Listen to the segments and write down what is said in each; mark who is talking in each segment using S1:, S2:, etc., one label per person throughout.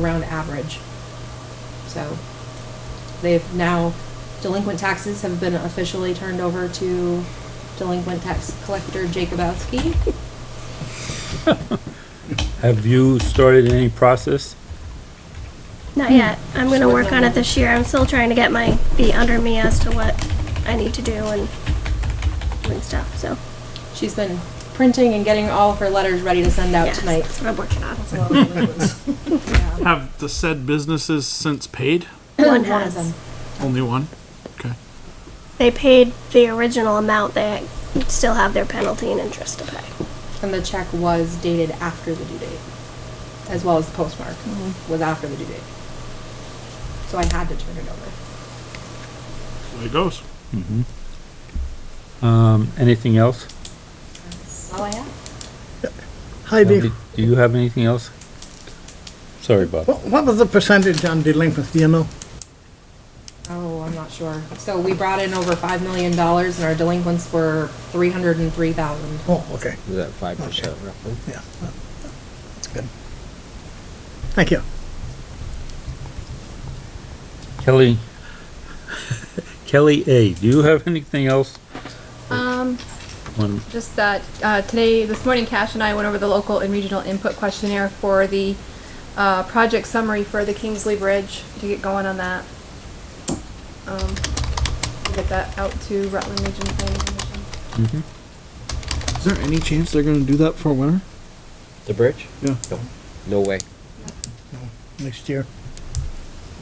S1: around average. So they've now, delinquent taxes have been officially turned over to delinquent tax collector Jacobowski.
S2: Have you started any process?
S3: Not yet. I'm gonna work on it this year. I'm still trying to get my feet under me as to what I need to do and doing stuff, so.
S1: She's been printing and getting all of her letters ready to send out
S3: yes,
S1: tonight.
S3: That's what I'm working on.
S4: Have the said businesses since paid?
S3: One
S1: One of
S3: has.
S1: them.
S4: Only one? Okay.
S3: They paid the original amount. They still have their penalty and interest to pay.
S1: And the check was dated after the due date, as well as the postmark
S3: Mm-hmm.
S1: was after the due date. So I had to turn it over.
S4: There it goes.
S2: Um, anything else?
S1: That's all I have.
S5: Hi,
S2: Andy,
S5: Dave.
S2: Do you have anything else? Sorry, Bob.
S5: What what was the percentage on delinquency, do you know?
S1: Oh, I'm not sure. So we brought in over five million dollars and our delinquents were three hundred and three thousand.
S5: Oh, okay,
S6: Was that five percent roughly?
S5: yeah. That's good. Thank you.
S2: Kelly, Kelly A., do you have anything else?
S7: Um,
S2: One,
S7: just that, uh, today, this morning, Cash and I went over the local and regional input questionnaire for the, uh, project summary for the Kingsley Bridge to get going on that. Um, we'll get that out to Rutland Region Planning Commission.
S8: Is there any chance they're gonna do that for winter?
S6: The bridge?
S8: Yeah.
S6: No, no way.
S5: Next year.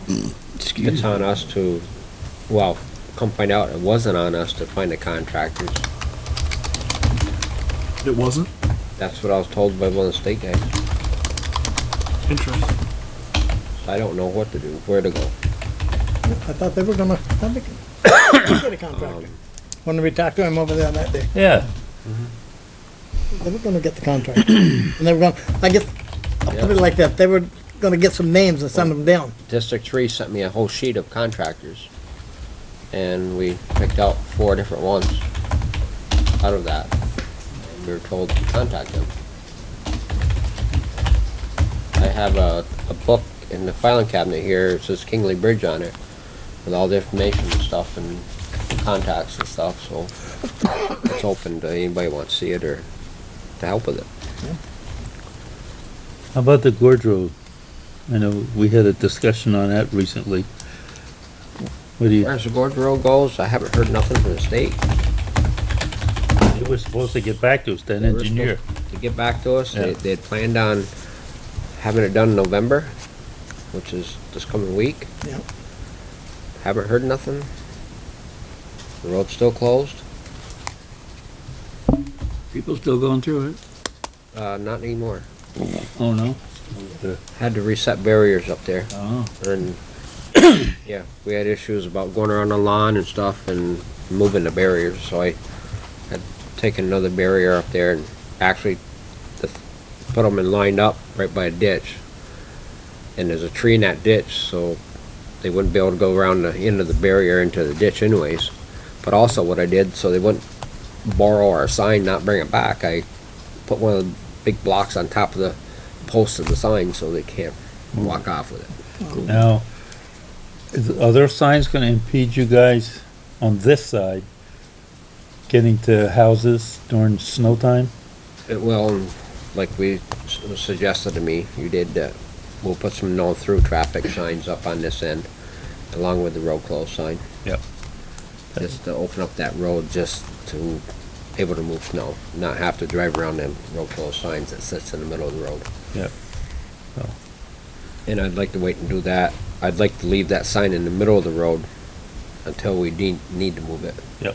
S6: It's on us to, well, come find out, it wasn't on us to find the contractors.
S8: It wasn't?
S6: That's what I was told by one of the state guys.
S4: Interesting.
S6: I don't know what to do, where to go.
S5: I thought they were gonna, I thought they could get a contractor. When we talked to him over there that day, Mm-hmm.
S2: yeah.
S5: they were gonna get the contractor. And they were gonna, I guess, I'll put it
S6: Yeah.
S5: like that, they were gonna get some names and send them down.
S6: District Three sent me a whole sheet of contractors, and we picked out four different ones out of that. We were told to contact them. I have a, a book in the filing cabinet here, it says Kingley Bridge on it, with all the information and stuff and contacts and stuff, so it's open to anybody who wants to see it or to help with it.
S2: How about the Gorge Road? I know we had a discussion on that recently. What do you,
S6: As the Gorge Road goes, I haven't heard nothing from the state.
S2: they were supposed to get back to us, that
S6: They were
S2: engineer.
S6: supposed To get back to us, they,
S2: Yeah.
S6: they had planned on having it done in November, which is this coming week.
S5: Yeah.
S6: Haven't heard nothing. The road's still closed,
S2: People still going through it?
S6: uh, not anymore.
S2: Oh, no?
S6: Had to reset barriers up there,
S2: Oh.
S6: and, yeah, we had issues about going around the lawn and stuff and moving the barriers, so I had taken another barrier up there and actually the- put them in lined up right by a ditch. And there's a tree in that ditch, so they wouldn't be able to go around the end of the barrier into the ditch anyways. But also what I did, so they wouldn't borrow our sign, not bring it back, I put one of the big blocks on top of the post of the sign so they can't walk off with it.
S2: Now, is, are there signs gonna impede you guys on this side getting to houses during snow time?
S6: It will, Uh, like we s- was suggested to me, you did, that we'll put some no-through traffic signs up on this end, along with the road closed sign.
S2: Yep.
S6: Just to open up that road, just to able to move snow, not have to drive around them road closed signs that sits in the middle of the road.
S2: Yep. So.
S6: And I'd like to wait and do that. I'd like to leave that sign in the middle of the road until we need, need to move it.
S2: Yep.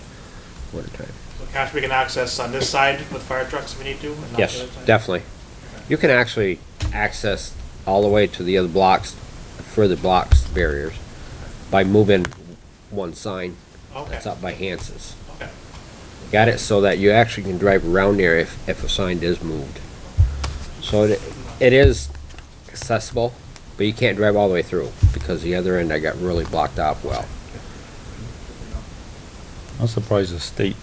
S6: Winter time.
S9: So cash we can access on this side with fire trucks if we need to? and not the
S6: Yes,
S9: other side?
S6: definitely. You can actually access all the way to the other blocks, further blocks barriers, by moving one sign that's
S9: Okay,
S6: up by Hans's.
S9: okay.
S6: Got it so that you actually can drive around there if, if a sign is moved. So it, it is accessible, but you can't drive all the way through, because the other end I got really blocked off well.
S2: I'm surprised the state,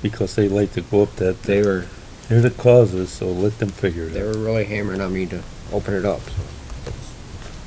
S2: because they like to go up that,
S6: They were,
S2: they're the causes, so let them figure it
S6: they
S2: out.
S6: were really hammering on me to open it up, so.